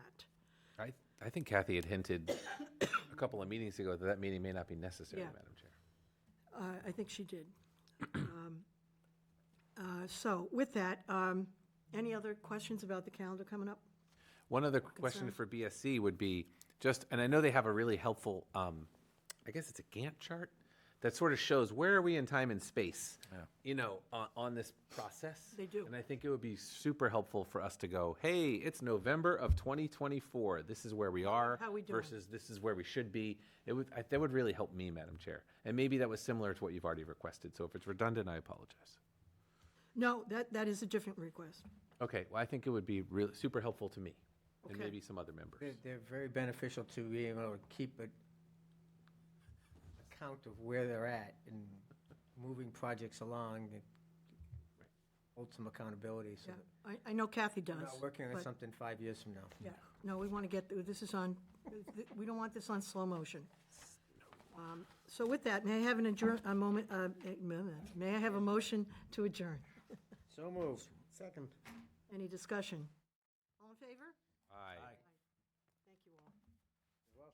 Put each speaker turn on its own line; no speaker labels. I, I think Kathy had hinted a couple of meetings ago that that meeting may not be necessary,
Yeah.
Madam Chair.
Uh, I think she did. Um, uh, So with that, um, any other questions about the calendar coming up?
One other question for BSC would be just, and I know they have a really helpful, um, I guess it's a Gantt chart that sort of shows where are we in time and space, you know, on, on this process.
They do.
And I think it would be super helpful for us to go, hey, it's November of 2024. This is where we are
How we doing?
versus this is where we should be. It would, I, that would really help me, Madam Chair. And maybe that was similar to what you've already requested. So if it's redundant, I apologize.
No, that, that is a different request.
Okay, well, I think it would be really, super helpful to me and
Okay.
maybe some other members.
They're, they're very beneficial to being able to keep a account of where they're at and moving projects along and hold some accountability so
Yeah,
that
I, I know Kathy does.
we're not working on
but-
something five years from now.
Yeah, no, we want to get, this is on, we don't want this on slow motion. Um, So with that, may I have an adjourn, a moment, uh, a moment. may I have a motion to adjourn?
So moved. Second.
Any discussion? All in favor?
Aye.